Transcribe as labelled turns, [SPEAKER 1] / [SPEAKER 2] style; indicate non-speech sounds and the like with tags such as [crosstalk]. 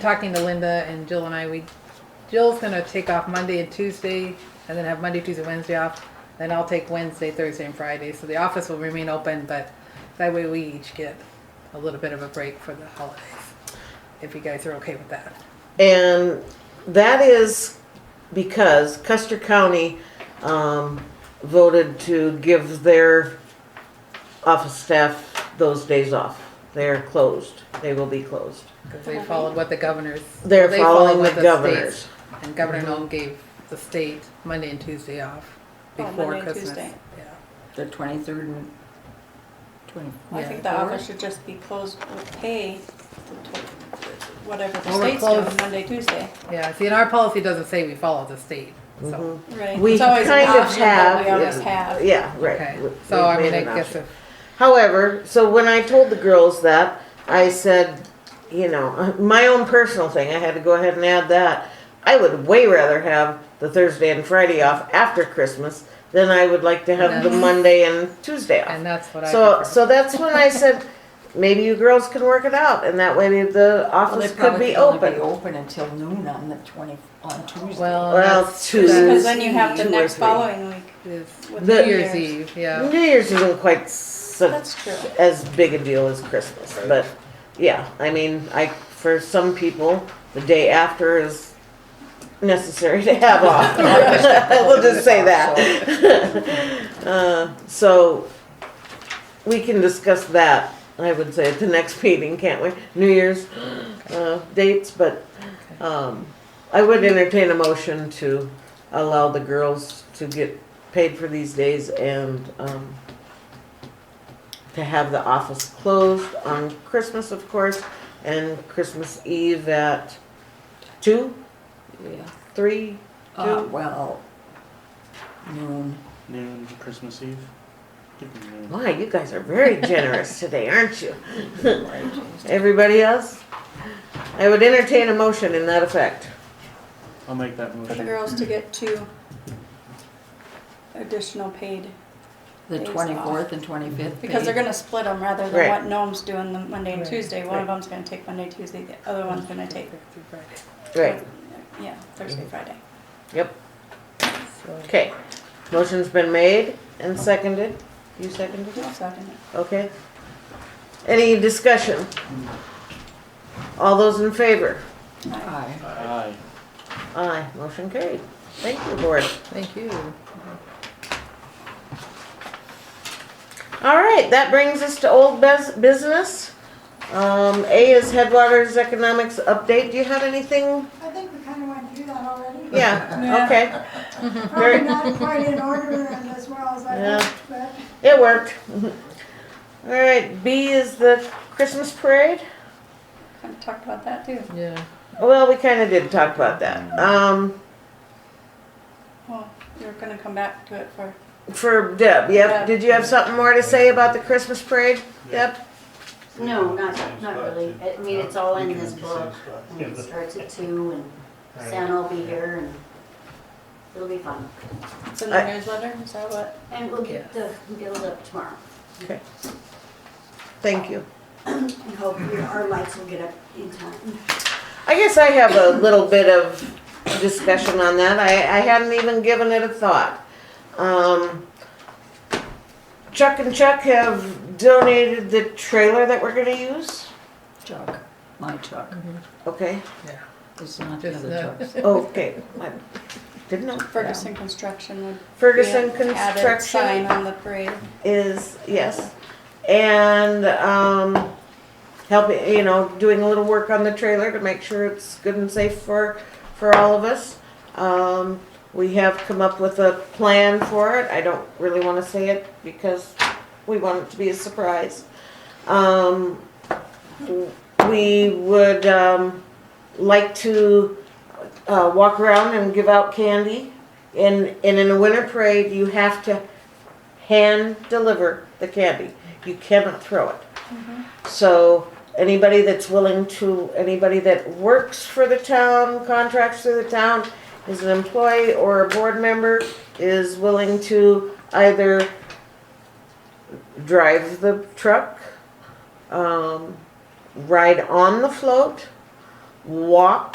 [SPEAKER 1] talking to Linda and Jill and I, we, Jill's gonna take off Monday and Tuesday, and then have Monday, Tuesday, Wednesday off. Then I'll take Wednesday, Thursday, and Friday, so the office will remain open, but that way we each get a little bit of a break for the holidays. If you guys are okay with that.
[SPEAKER 2] And that is because Custer County um, voted to give their office staff those days off. They're closed. They will be closed.
[SPEAKER 1] Because they followed what the governors.
[SPEAKER 2] They're
[SPEAKER 1] they followed
[SPEAKER 2] following
[SPEAKER 1] what
[SPEAKER 2] the
[SPEAKER 1] states-
[SPEAKER 2] governors.
[SPEAKER 1] And Governor Noel gave the state Monday and Tuesday off
[SPEAKER 3] Oh,
[SPEAKER 1] before
[SPEAKER 3] Monday and
[SPEAKER 1] Christmas.
[SPEAKER 3] Tuesday.
[SPEAKER 1] Yeah.
[SPEAKER 4] The twenty-third and twenty.
[SPEAKER 3] I
[SPEAKER 1] Yeah.
[SPEAKER 3] think the office should just be closed with pay, the tw- whatever the
[SPEAKER 1] Well, we're
[SPEAKER 3] state's doing,
[SPEAKER 1] closed.
[SPEAKER 3] Monday, Tuesday.
[SPEAKER 1] Yeah, see, and our policy doesn't say we follow the state, so,
[SPEAKER 3] Right.
[SPEAKER 2] We
[SPEAKER 3] It's always an
[SPEAKER 2] kind of
[SPEAKER 3] option, but
[SPEAKER 2] have-
[SPEAKER 3] We always have.
[SPEAKER 2] Uh, Yeah, Mm-hmm. right.
[SPEAKER 1] okay.
[SPEAKER 2] We-
[SPEAKER 1] So,
[SPEAKER 2] we've
[SPEAKER 1] I mean,
[SPEAKER 2] made
[SPEAKER 1] I
[SPEAKER 2] an
[SPEAKER 1] guess
[SPEAKER 2] option.
[SPEAKER 1] if,
[SPEAKER 2] However, so when I told the girls that, I said, you know, [laughs] my own personal thing, I had to go ahead and add that. I would way rather have the Thursday and Friday off after Christmas than I would like to have the
[SPEAKER 1] Mhm.
[SPEAKER 2] Monday and Tuesday off.
[SPEAKER 1] and that's what I
[SPEAKER 2] So,
[SPEAKER 1] prefer.
[SPEAKER 2] so that's when
[SPEAKER 1] [laughs]
[SPEAKER 2] I said, maybe you girls can work it out, and that way the office could be
[SPEAKER 4] Be
[SPEAKER 2] open.
[SPEAKER 4] open until noon on the twenty, on Tuesday.
[SPEAKER 1] Well,
[SPEAKER 2] Well,
[SPEAKER 1] that's-
[SPEAKER 3] Because
[SPEAKER 2] Tuesday,
[SPEAKER 3] then you have the
[SPEAKER 2] two or
[SPEAKER 3] next
[SPEAKER 2] three.
[SPEAKER 3] following week
[SPEAKER 1] is
[SPEAKER 3] with
[SPEAKER 2] The-
[SPEAKER 3] New
[SPEAKER 1] New Year's
[SPEAKER 3] Year's.
[SPEAKER 1] Eve, yeah,
[SPEAKER 2] New Year's isn't quite such
[SPEAKER 3] That's true.
[SPEAKER 2] as big a deal as Christmas, but yeah, I mean, I for some people, the day after is necessary to have [laughs] off. we'll just say that. [laughs] uh, so we can discuss that. I would say at the next meeting, can't we? New Year's [gasps] uh, dates, but um, I would entertain a motion to allow the girls to get paid for these days and um, to have the office closed on Christmas, of course, and Christmas Eve at two,
[SPEAKER 4] Yeah.
[SPEAKER 2] three.
[SPEAKER 4] Uh, well, noon.
[SPEAKER 5] Noon, Christmas Eve. Give me noon.
[SPEAKER 2] My, you guys are very generous today, aren't you? [laughs]
[SPEAKER 4] right,
[SPEAKER 2] Everybody else? I would entertain a motion in that effect.
[SPEAKER 5] I'll make that
[SPEAKER 3] For the
[SPEAKER 5] motion.
[SPEAKER 3] girls to get two additional paid,
[SPEAKER 4] The
[SPEAKER 3] Days off.
[SPEAKER 4] twenty-fourth and twenty-fifth.
[SPEAKER 3] because they're gonna split them rather
[SPEAKER 2] Right.
[SPEAKER 3] than what Noam's doing the Monday and
[SPEAKER 1] Right.
[SPEAKER 3] Tuesday. One of them's gonna take Monday, Tuesday, the other one's gonna take,
[SPEAKER 2] Right,
[SPEAKER 3] yeah, Thursday, Friday.
[SPEAKER 2] yep,
[SPEAKER 1] So,
[SPEAKER 2] okay. Motion's been made and seconded. You seconded it?
[SPEAKER 3] I'll second it.
[SPEAKER 2] Okay. Any discussion? All those in favor?
[SPEAKER 4] Aye.
[SPEAKER 5] Aye.
[SPEAKER 2] Aye, motion carried. Thank you, board.
[SPEAKER 1] Thank you.
[SPEAKER 2] All right, that brings us to old bus- business. Um, A is Headwaters Economics Update. Do you have anything?
[SPEAKER 6] I think we kind of went through that already.
[SPEAKER 2] Yeah, okay.
[SPEAKER 6] Probably not quite in order and as well as I
[SPEAKER 2] Yeah.
[SPEAKER 6] hoped, but.
[SPEAKER 2] It worked. All right, B is the Christmas parade.
[SPEAKER 3] Kind of talked about that too.
[SPEAKER 1] Yeah,
[SPEAKER 2] Well, we kind of did talk about that. Um,
[SPEAKER 3] Well, you're gonna come back to it for,
[SPEAKER 2] for Deb, yep. Did you have something more to say about the Christmas parade, Deb?
[SPEAKER 7] No, not, not really. I mean, it's all in this book. I mean, It starts at two and Santa will be here and it'll be fun.
[SPEAKER 3] it's in the
[SPEAKER 2] I-
[SPEAKER 3] newsletter, is that what?
[SPEAKER 7] And we'll get the guild up tomorrow.
[SPEAKER 2] Thank you.
[SPEAKER 7] And hope your- our lights will get up in time.
[SPEAKER 2] I guess I have a little bit of discussion on that. I, I hadn't even given it a thought. Um, Chuck and Chuck have donated the trailer that we're gonna use.
[SPEAKER 4] Chuck, my Chuck.
[SPEAKER 2] Okay,
[SPEAKER 3] [laughs]
[SPEAKER 4] It's not the
[SPEAKER 1] Just
[SPEAKER 4] other
[SPEAKER 1] the-
[SPEAKER 4] Chuck's.
[SPEAKER 2] okay. I Didn't know.
[SPEAKER 3] Ferguson Construction would. be
[SPEAKER 2] Ferguson
[SPEAKER 3] an added Sign
[SPEAKER 2] Construction
[SPEAKER 3] on the parade.
[SPEAKER 2] is, yes. And, um, helping, you know, doing a little work on the trailer to make sure it's good and safe for, for all of us. Um, we have come up with a plan for it. I don't really wanna say it because we want it to be a surprise. Um, we would, um, like to, uh, walk around and give out candy. And, and in a winter parade, you have to hand deliver the candy. You cannot throw it. So anybody that's willing to, anybody that works for the town, contracts through the town, is an employee or a board member, is willing to either drive the truck, um, ride on the float, walk